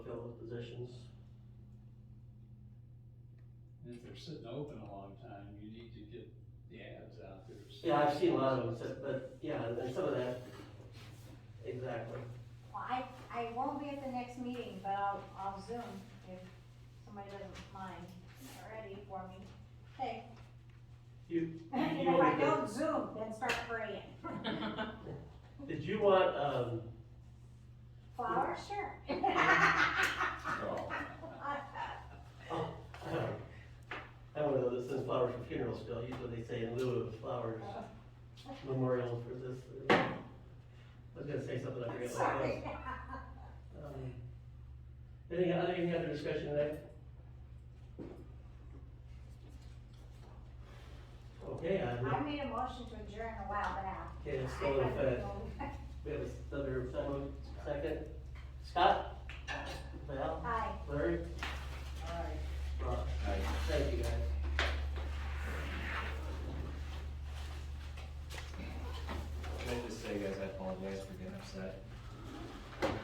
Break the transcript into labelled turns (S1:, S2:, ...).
S1: those positions.
S2: If they're sitting open a long time, you need to get the ads out there. so-
S1: Yeah, I've seen a lot of them, so- but, yeah, and some of that, exactly.
S3: Well, I, I won't be at the next meeting, but I'll, I'll zoom if somebody doesn't mind already for me. Hey.
S1: You-
S3: And
S1: you
S3: if I
S1: only-
S3: don't zoom, then start praying.
S1: Did you want, um,
S3: Flowers, sure.
S2: Oh.
S1: I don't know, this is flowers for funeral still, usually they say in lieu of flowers, memorial for this. uh, I was gonna say something, I forget what it
S3: Sorry.
S1: was. Um, Any, other- any other discussion tonight? Okay, I,
S3: I made a motion to adjourn a while back.
S1: okay, it's still in effect. We have another someone, second. Scott? Val?
S3: Hi.
S1: Larry? Rob? Thank you, guys.
S4: Can I just say, guys, I apologize for getting upset.